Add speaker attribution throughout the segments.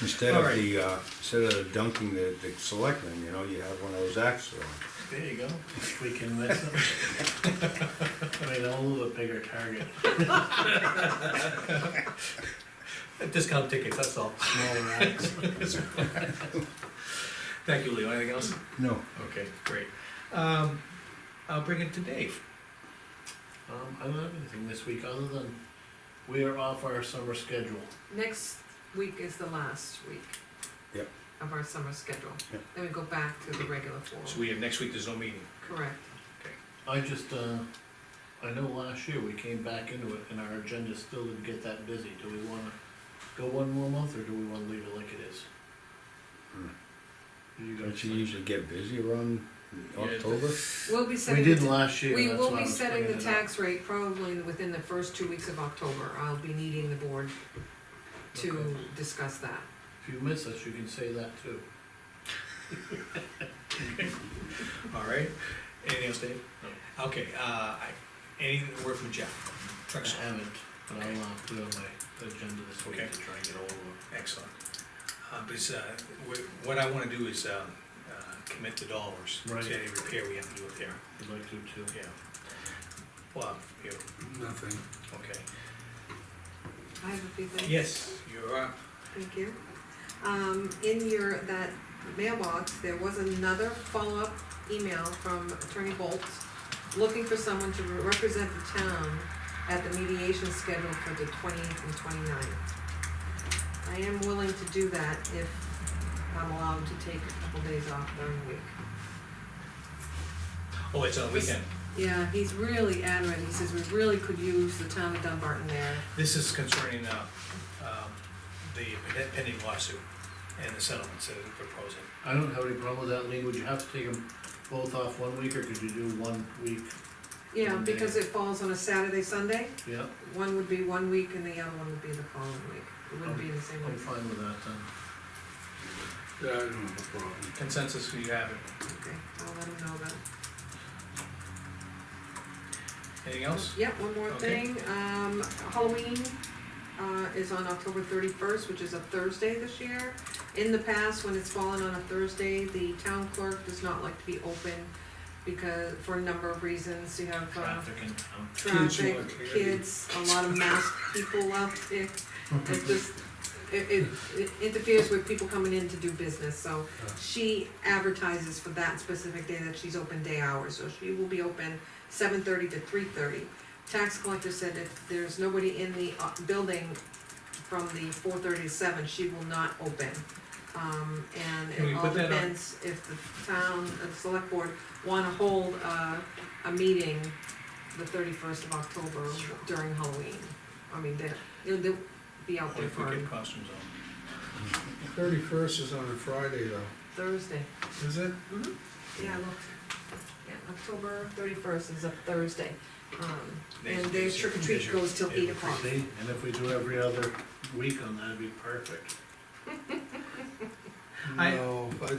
Speaker 1: Instead
Speaker 2: All
Speaker 1: of
Speaker 2: right.
Speaker 1: the, uh, instead of dunking the, the selectmen, you know, you have one of those axes
Speaker 2: There you go.
Speaker 3: If we can miss them. I mean, I'll move a bigger target.
Speaker 2: Discount tickets, that's all.
Speaker 3: Small rats.
Speaker 2: Thank you, Leo. Anything else?
Speaker 1: No.
Speaker 2: Okay, great. Um, I'll bring it to Dave.
Speaker 3: Um, I don't have anything this week other than we are off our summer schedule.
Speaker 4: Next week is the last week.
Speaker 1: Yep.
Speaker 4: Of our summer schedule.
Speaker 1: Yep.
Speaker 4: Then we go back to the regular
Speaker 2: So
Speaker 4: form,
Speaker 2: we have, next week, there's no meeting.
Speaker 4: correct.
Speaker 3: I just, uh, I know last year we came back into it and our agenda still didn't get that busy. Do we wanna go one more month or do we wanna leave it like it is?
Speaker 1: Hmm.
Speaker 3: You
Speaker 1: Don't
Speaker 3: guys,
Speaker 1: you usually get busy around October?
Speaker 4: We'll be
Speaker 3: we
Speaker 4: setting,
Speaker 3: did
Speaker 4: the
Speaker 3: last
Speaker 4: ta-
Speaker 3: year,
Speaker 4: we
Speaker 3: that's
Speaker 4: will
Speaker 3: why I
Speaker 4: be
Speaker 3: was
Speaker 4: setting the
Speaker 3: bringing it up.
Speaker 4: tax rate probably within the first two weeks of October. I'll be needing the board to
Speaker 3: Okay.
Speaker 4: discuss that.
Speaker 3: If you miss us, you can say that too.
Speaker 2: All right. Anything else, Dave? No. Okay, uh, I, any word from Jeff?
Speaker 3: I
Speaker 2: Truxell.
Speaker 3: haven't, but I'll,
Speaker 2: Okay.
Speaker 3: uh, put it on my agenda this week
Speaker 2: Okay.
Speaker 3: to try and get hold of them.
Speaker 2: Excellent. Uh, because, uh, wh- what I wanna do is, um, uh, commit the dollars to
Speaker 3: Right.
Speaker 2: any repair we have to do up there.
Speaker 3: I'd like to too.
Speaker 2: Yeah. Bob, you,
Speaker 5: Nothing.
Speaker 2: okay.
Speaker 4: I have a few things.
Speaker 2: Yes, you're up.
Speaker 4: Thank you. Um, in your, that mailbox, there was another follow-up email from Attorney Bolt looking for someone to represent the town at the mediation scheduled for the twentieth and 29th. I am willing to do that if I'm allowed to take a couple days off during the week.
Speaker 2: Oh, it's on the weekend.
Speaker 4: Yeah, he's really adamant, he says we really could use the town of Dunbarton there.
Speaker 2: This is concerning, uh, um, the pending lawsuit and the settlements that we're proposing.
Speaker 3: I don't have any problem with that, Lee, would you have to take them both off one week, or could you do one week,
Speaker 4: Yeah, because it falls on a Saturday, Sunday.
Speaker 3: yeah?
Speaker 4: One would be one week and the other one would be the following week. It wouldn't be the same
Speaker 3: I'm
Speaker 4: week.
Speaker 3: fine with that, then.
Speaker 5: Yeah, I don't have a problem.
Speaker 2: Consensus, you have it.
Speaker 4: Okay, I'll let him know about it.
Speaker 2: Anything else?
Speaker 4: Yeah, one more
Speaker 2: Okay.
Speaker 4: thing, um, Halloween, uh, is on October thirty-first, which is a Thursday this year. In the past, when it's fallen on a Thursday, the town clerk does not like to be open because, for a number of reasons, you have, uh,
Speaker 3: Traffic and, um,
Speaker 4: traffic,
Speaker 5: want candy.
Speaker 4: kids, a lot of masked people out there. It just, it, it it interferes with people coming in to do business, so she advertises for that specific day that she's open day hours, so she will be open seven thirty to three thirty. Tax collector said if there's nobody in the uh, building from the four thirty to seven, she will not open. Um,
Speaker 2: Can
Speaker 4: and
Speaker 2: we
Speaker 4: it all
Speaker 2: put that on-
Speaker 4: depends if the town, the select board wanna hold, uh, a meeting the thirty-first of October during Halloween. I mean, they're, they'll, they'll be out
Speaker 2: What
Speaker 4: there
Speaker 2: if we
Speaker 4: for
Speaker 2: get costumes on?
Speaker 5: Thirty-first is on a Friday though,
Speaker 4: Thursday. Mm-hmm.
Speaker 5: is it?
Speaker 4: Yeah, look, yeah, October thirty-first is a Thursday. Um, and
Speaker 2: Next
Speaker 4: their
Speaker 2: Tuesday.
Speaker 4: trick or treat goes till eight o'clock.
Speaker 3: See, and if we do every other week on that, it'd be perfect.
Speaker 2: I-
Speaker 5: No, I, I,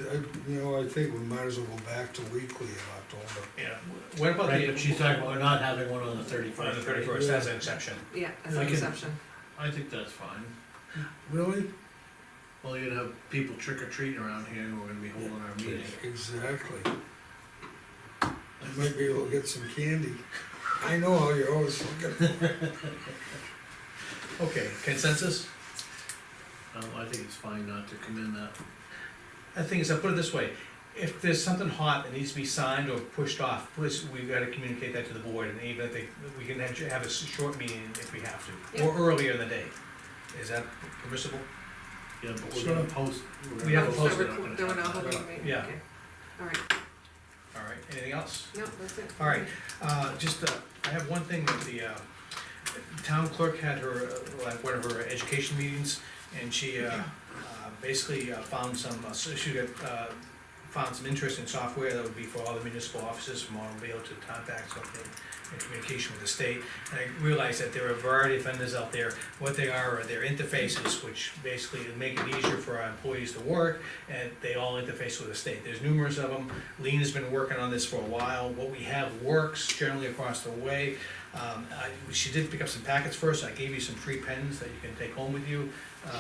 Speaker 5: you know, I think we might as well go back to weekly in October.
Speaker 2: Yeah, what about
Speaker 3: Right,
Speaker 2: the?
Speaker 3: but she's talking about not having one on the
Speaker 2: On the
Speaker 3: thirty-first.
Speaker 2: thirty-first, that's an exception.
Speaker 4: Yeah, as an
Speaker 3: I can-
Speaker 4: exception.
Speaker 3: I think that's fine,
Speaker 5: Really?
Speaker 3: well, you'd have people trick or treating around here, and we're gonna be holding our meeting.
Speaker 5: Exactly. I might be able to get some candy. I know how you're always looking.
Speaker 2: Okay, consensus?
Speaker 3: Um, I think it's fine not to come in that,
Speaker 2: The thing is, I put it this way, if there's something hot that needs to be signed or pushed off, please, we've gotta communicate that to the board, and even if they, we can have have a s- short meeting if we have to, or earlier in the day. Is that permissible?
Speaker 3: yeah, but we're gonna post. we're gonna
Speaker 2: We have to
Speaker 3: post
Speaker 4: So
Speaker 3: it,
Speaker 4: we're
Speaker 3: we're not
Speaker 4: doing
Speaker 3: gonna
Speaker 4: a
Speaker 3: have
Speaker 4: whole
Speaker 3: that.
Speaker 4: meeting,
Speaker 2: Yeah.
Speaker 4: okay. All right,
Speaker 2: All right, anything else?
Speaker 4: no, that's it.
Speaker 2: All right, uh, just, uh, I have one thing that the, uh, town clerk had her, uh, like, one of her education meetings, and she, uh, uh, basically uh, found some, uh, so she got, uh, found some interest in software that would be for all the municipal offices, from automobile to contact something, and communication with the state. And I realized that there are a variety of vendors out there, what they are, are their interfaces, which basically make it easier for our employees to work, and they all interface with the state, there's numerous of them, Lean has been working on this for a while. What we have works generally across the way. Um, I, she did pick up some packets first. I gave you some free pens that you can take home with you. Uh,